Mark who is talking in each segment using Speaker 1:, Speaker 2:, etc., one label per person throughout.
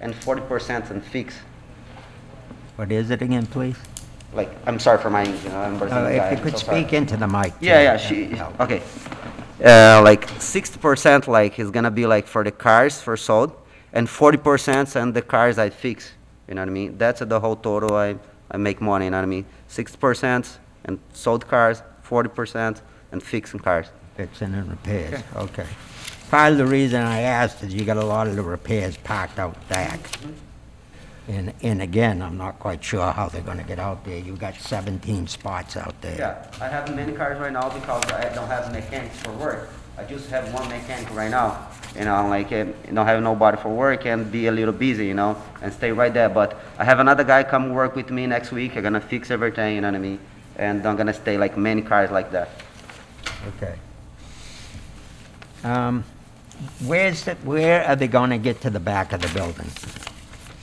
Speaker 1: and 40% in fixed.
Speaker 2: What is it again, please?
Speaker 1: Like, I'm sorry for my English, you know, I'm
Speaker 2: Uh,
Speaker 1: Brazilian guy,
Speaker 2: If
Speaker 1: I'm
Speaker 2: you could
Speaker 1: so sorry.
Speaker 2: speak into the mic.
Speaker 1: Yeah,
Speaker 2: too.
Speaker 1: yeah, she,
Speaker 2: No.
Speaker 1: okay. Uh, like 60% like is gonna be like for the cars for sold, and 40% on the cars I fix, you know what I mean? That's the whole total I, I make money, you know what I mean? 60% and sold cars, 40% and fixing cars.
Speaker 2: Fixing and repairs, okay. Part of the reason I asked is you got a lot of the repairs parked out back. And, and again, I'm not quite sure how they're gonna get out there. You've got 17 spots out there.
Speaker 1: Yeah, I have many cars right now because I don't have mechanics for work. I just have one mechanic right now, you know, like, eh, don't have nobody for work and be a little busy, you know, and stay right there. But I have another guy come work with me next week, I'm gonna fix everything, you know what I mean? And I'm gonna stay like many cars like that.
Speaker 2: Okay. Um, Where's the, where are they gonna get to the back of the building?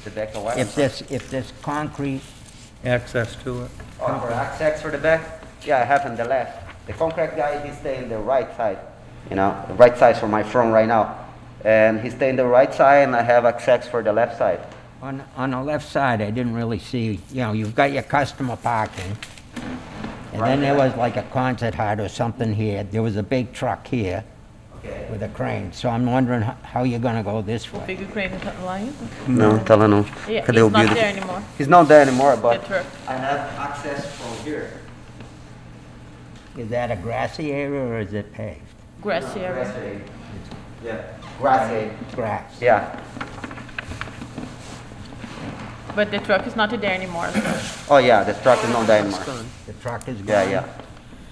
Speaker 1: The back of what?
Speaker 2: If this, if this concrete,
Speaker 3: access to it.
Speaker 1: Oh, for access for the back? Yeah, I have on the left. The concrete guy, he stay in the right side, you know, the right side for my front right now. And he stay in the right side and I have access for the left side.
Speaker 2: on, on the left side, I didn't really see, you know, you've got your customer parking. And then there was like a concert hut or something here. There was a big truck here
Speaker 1: Okay.
Speaker 2: with a crane. So I'm wondering ho- how you're gonna go this way.
Speaker 4: Bigger crane is not lying.
Speaker 1: No, tell her no.
Speaker 4: Yeah,
Speaker 1: Cadê o
Speaker 4: he's not
Speaker 1: Bill?
Speaker 4: there anymore.
Speaker 1: He's not there anymore, but
Speaker 4: Get her.
Speaker 1: I have access from here.
Speaker 2: Is that a grassy area or is it paved?
Speaker 4: Grassy area.
Speaker 1: Grassy. Yeah. Grassy.
Speaker 2: Grass.
Speaker 1: Yeah.
Speaker 4: But the truck is not there anymore.
Speaker 1: Oh yeah, the truck is not there anymore.
Speaker 2: The truck is gone?
Speaker 1: Yeah, yeah.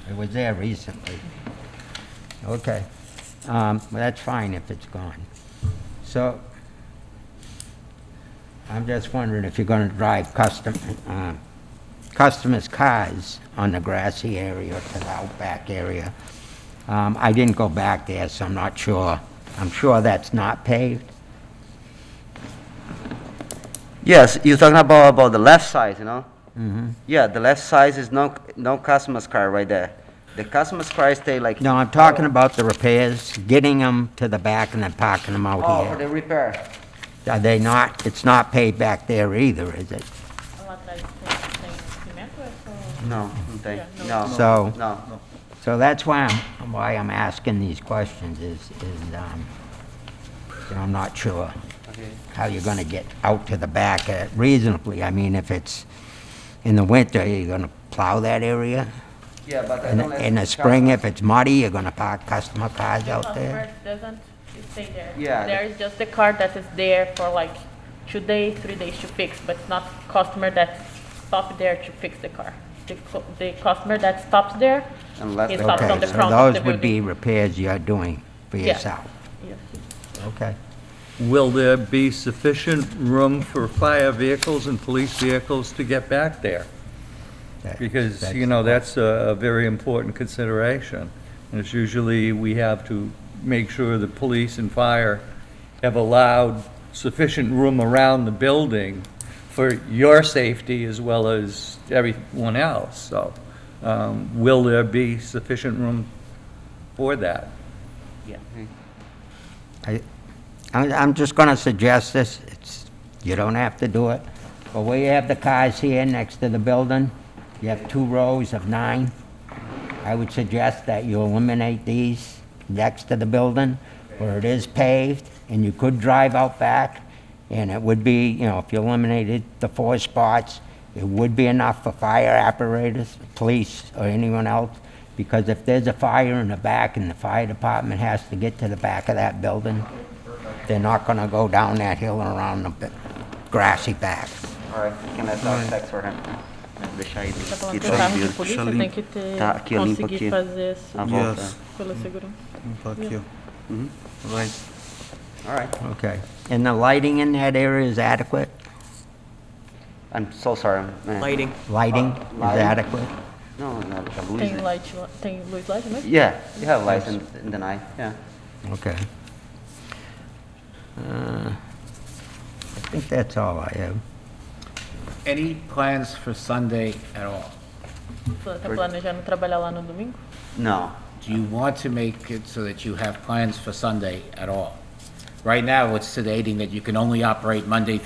Speaker 2: It was there recently. Okay. Um, well, That's fine if it's gone. So I'm just wondering if you're going to drive custom, uh, customers' cars on the grassy area to the outback area. Um, I didn't go back there, so I'm not sure. I'm sure that's not paved.
Speaker 1: Yes, you're talking about about the left side, you know? Mm-hmm. Yeah, the left side is no no customer's car right there. The customer's car stay like
Speaker 2: No, I'm
Speaker 1: Oh.
Speaker 2: talking about the repairs, getting them to the back and then parking them
Speaker 1: Oh,
Speaker 2: out
Speaker 1: for the
Speaker 2: here.
Speaker 1: repair.
Speaker 2: Are they not, it's not paved back there either, is it?
Speaker 1: No, não tem.
Speaker 4: Yeah,
Speaker 1: No.
Speaker 4: no.
Speaker 2: So-
Speaker 1: No.
Speaker 2: So that's why I'm, why I'm asking these questions is, is, um, you know, I'm not sure
Speaker 1: Okay.
Speaker 2: how you're gonna get out to the back uh, reasonably. I mean, if it's in the winter, you're gonna plow that area?
Speaker 1: Yeah, but I
Speaker 2: In,
Speaker 1: don't let
Speaker 2: in the spring, if it's muddy, you're gonna park customer cars out there?
Speaker 4: Doesn't stay there.
Speaker 1: Yeah.
Speaker 4: There is just the car that is there for like two days, three days to fix, but it's not customer that stop there to fix the car. The, cu- the customer that stops there,
Speaker 1: And let
Speaker 4: he
Speaker 1: the
Speaker 4: stops
Speaker 1: car
Speaker 4: on
Speaker 2: Okay,
Speaker 4: the
Speaker 2: so
Speaker 4: front of the
Speaker 2: those would be
Speaker 4: building.
Speaker 2: repairs you're doing for
Speaker 4: Yeah.
Speaker 2: yourself?
Speaker 4: Yeah.
Speaker 2: Okay.
Speaker 3: Will there be sufficient room for fire vehicles and police vehicles to get back there?
Speaker 2: That-
Speaker 3: Because,
Speaker 2: that's-
Speaker 3: you know, that's a a very important consideration. And it's usually, we have to make sure the police and fire have allowed sufficient room around the building for your safety as well as everyone else. So um, will there be sufficient room for that?
Speaker 2: I, I'm, I'm just gonna suggest this, it's, you don't have to do it, but where you have the cars here next to the building, you have two rows of nine. I would suggest that you eliminate these next to the building where it is paved and you could drive out back. And it would be, you know, if you eliminated the four spots, it would be enough for fire apparatus, police, or anyone else. Because if there's a fire in the back and the fire department has to get to the back of that building, they're not gonna go down that hill and around the b- grassy back.
Speaker 1: All right, can I talk sex for him? Deixar ele.
Speaker 4: Tá falando
Speaker 1: Ele
Speaker 4: que
Speaker 1: tá
Speaker 4: o carro de
Speaker 1: vivo.
Speaker 4: polícia
Speaker 5: limpo.
Speaker 4: tem que ter,
Speaker 1: Tá, aqui, eu limpo aqui. Tá
Speaker 4: conseguir fazer isso
Speaker 1: A volta.
Speaker 5: Yes,
Speaker 4: pela segurança.
Speaker 5: limpa aqui, ó. Right.
Speaker 1: All right.
Speaker 2: Okay. And the lighting in that area is adequate?
Speaker 1: I'm so sorry. Man.
Speaker 6: Lighting.
Speaker 2: Lighting
Speaker 1: Uh,
Speaker 2: is
Speaker 1: lighting.
Speaker 2: adequate?
Speaker 1: No, no, like a
Speaker 4: Tem
Speaker 1: loser.
Speaker 4: light, lá- tem luz lá também?
Speaker 1: Yeah, you have lights in, in the night. Yeah.
Speaker 2: Okay. Uh, I think that's all I have.
Speaker 7: Any plans for Sunday at all?
Speaker 4: Tá planejando trabalhar lá no domingo?
Speaker 1: No.
Speaker 7: Do you want to make it so that you have plans for Sunday at all? Right now, it's stating that you can only operate Monday